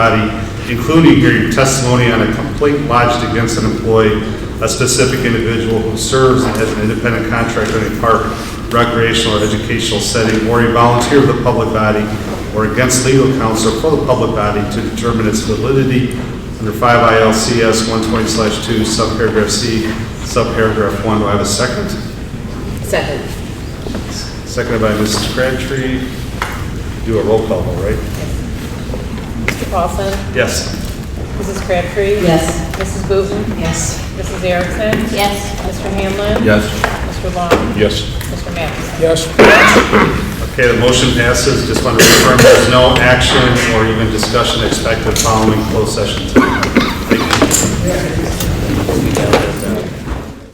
body, including hearing testimony on a complaint lodged against an employee, a specific individual who serves as an independent contractor in a park, recreational, or educational setting, or a volunteer of the public body, or against legal counsel for the public body to determine its validity under 5 ILCS 120/2, subparagraph C, subparagraph 1. Do I have a second? Second. Seconded by Mrs. Crabtree. Do a roll call, all right? Mr. Paulson? Yes. Mrs. Crabtree? Yes. Mrs. Booten? Yes. Mrs. Erickson? Yes. Mr. Hanlon? Yes. Mr. Long? Yes. Mr. Matheson? Yes. Okay, the motion passes. Just want to confirm there's no action or even discussion expected following closed session tonight. Thank you.